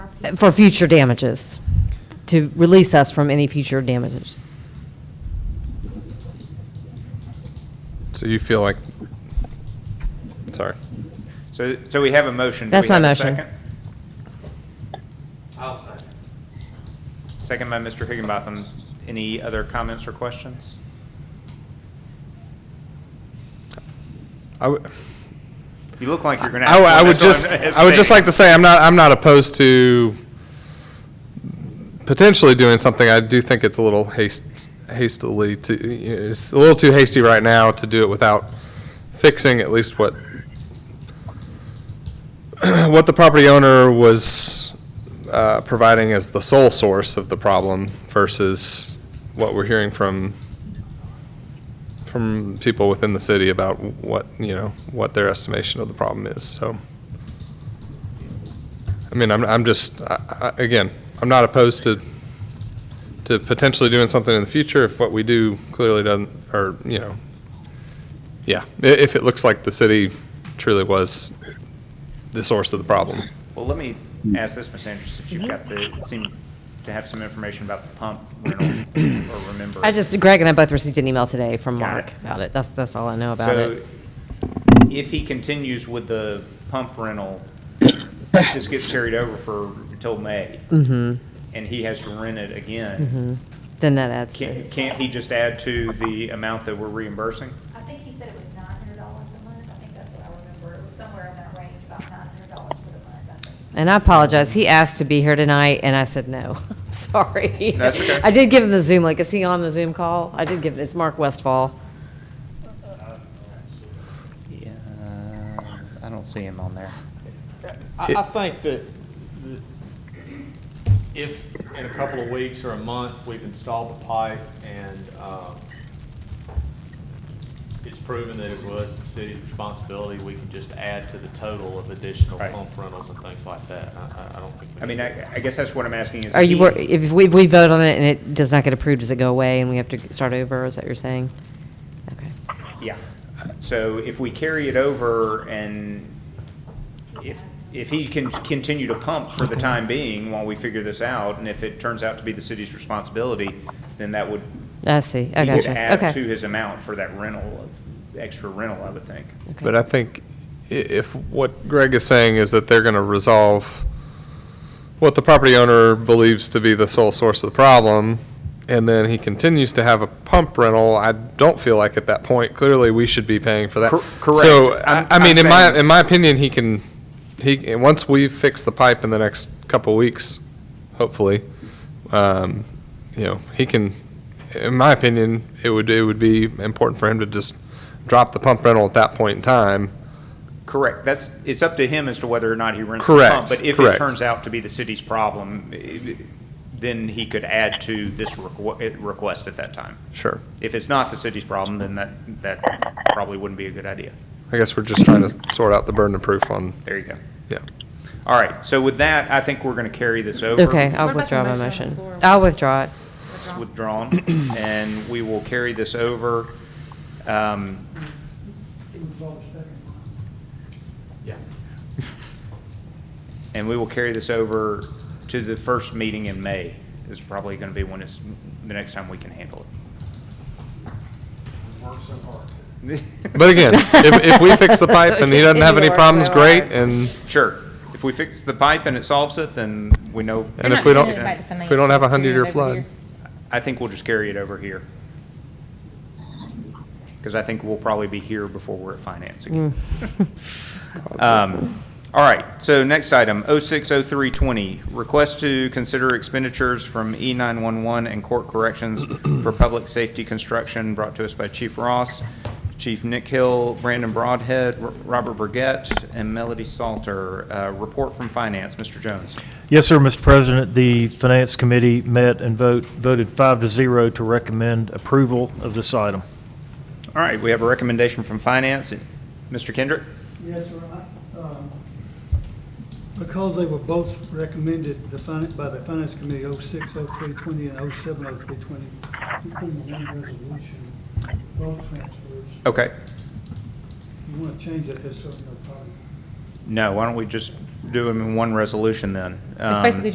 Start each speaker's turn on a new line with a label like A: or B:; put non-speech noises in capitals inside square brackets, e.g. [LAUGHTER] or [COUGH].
A: for future damages, to release us from any future damages.
B: So you feel like, sorry.
C: So, so we have a motion. Do
A: That's
C: we
A: my
C: have a
A: motion.
C: second? Second by Mr. Higginbotham. Any other comments or questions?
B: I would,
C: You look like you're going to.
B: I, would- I would just,
C: [LAUGHS]
B: I would just like to say, I'm not, I'm not opposed to potentially doing something. I do think it's a little haste, hastily to, it's a little too hasty right now to do it without fixing at least what, [CLEARS THROAT] what the property owner was, uh, providing as the sole source of the problem versus what we're hearing from from people within the city about what, you know, what their estimation of the problem is, so. I mean, I'm, I'm just, I, I, again, I'm not opposed to, to potentially doing something in the future if what we do clearly doesn't, or, you know, yeah, i- if it looks like the city truly was the source of the problem.
C: Well, let me ask this, Ms. Andrews, since you've got the, seem to have some information about the pump rental or remember.
A: I just, Greg and I both received an email today from
C: Got
A: Mark
C: it.
A: about it. That's, that's all I know about
C: So
A: it.
C: if he continues with the pump rental, this gets carried over for, until May.
A: Mm-hmm.
C: And he has to rent it again.
A: Then that adds to
C: Can't
A: it.
C: can't he just add to the amount that we're reimbursing?
D: I think he said it was nine hundred dollars a month, I think that's what I remember, it was somewhere in that range, about nine hundred dollars for the month, I think.
A: And I apologize. He asked to be here tonight, and I said no. [LAUGHS] I'm sorry.
C: That's okay.
A: I did give him the Zoom link. Is he on the Zoom call? I did give, it's Mark Westfall.
C: Yeah, I don't see him on there.
E: I, I think that the- if in a couple of weeks or a month, we've installed the pipe and, um, it's proven that it was the city's responsibility, we can just add to the total of additional
C: Right.
E: pump rentals and things like that. I, I, I don't think. we
C: I mean,
E: need
C: I, I guess that's what I'm asking is.
A: Are you,
C: he-
A: wor- if we, if we vote on it and it does not get approved, does it go away and we have to start over? Is that what you're saying? Okay.
C: Yeah. So if we carry it over and if, if he can continue to pump for the time being while we figure this out, and if it turns out to be the city's responsibility, then that would,
A: I see. I
C: he would
A: gotcha.
C: add to
A: Okay.
C: his amount for that rental, of extra rental, I would think.
A: Okay.
B: But I think i- if what Greg is saying is that they're gonna resolve what the property owner believes to be the sole source of the problem, and then he continues to have a pump rental, I don't feel like at that point, clearly, we should be paying for that.
C: Cor- correct.
B: So,
C: I'm-
B: I, I mean,
C: I'm
B: in my,
C: saying-
B: in my opinion, he can, he, and once we fix the pipe in the next couple weeks, hopefully, um, you know, he can, in my opinion, it would, it would be important for him to just drop the pump rental at that point in time.
C: Correct. That's, it's up to him as to whether or not he rents the
B: Correct,
C: pump. But if it
B: correct.
C: turns out to be the city's problem, eh, then he could add to this requ- eh, request at that time.
B: Sure.
C: If it's not the city's problem, then that, that probably wouldn't be a good idea.
B: I guess we're just trying to sort out the burden of proof on,
C: There you go.
B: yeah.
C: All right, so with that, I think we're going to carry this over.
A: Okay,
F: What about
A: I'll
F: the
A: withdraw my
F: motion on the
A: motion.
F: floor?
A: I'll withdraw it.
C: It's withdrawn, [CLEARS THROAT] and we will carry this over. Um, And we will carry this over to the first meeting in May, is probably going to be when it's, the next time we can handle it.
B: But again, if, if we fix the pipe
A: [LAUGHS]
B: and he doesn't have any
A: Continue our
B: problems,
A: so
B: great,
A: hard.
B: and,
C: Sure, if we fix the pipe and it solves it, then we know.
B: and
F: They're
B: if we
F: not
B: don't,
F: doing it by the
B: if we don't have a
F: financials, they're doing
B: hundred-year
F: it over
B: flood.
F: here.
C: I think we'll just carry it over here. Because I think we'll probably be here before we're at finance again. [LAUGHS] Um, All right, so next item, 060320, request to consider expenditures from E E911 and court corrections for public safety construction brought to us by Chief Ross, Chief Nick Hill, Brandon Broadhead, R- Robert Burgett, and Melody Salter. Uh, Report from finance, Mr. Jones.
G: Yes, sir, Mr. President. The Finance Committee met and vote, voted five to zero to recommend approval of this item.
C: All right, we have a recommendation from finance. Mr. Kendrick?
H: Yes, sir. I- um, Because they were both recommended the fin- by the Finance Committee, 06, 0320 and 07, 0320, we put them in one resolution, both transfers.
C: Okay.
H: You want to change that, there's certainly no problem.
C: No, why don't we just do them in one resolution then?
F: It's
C: Um,
F: basically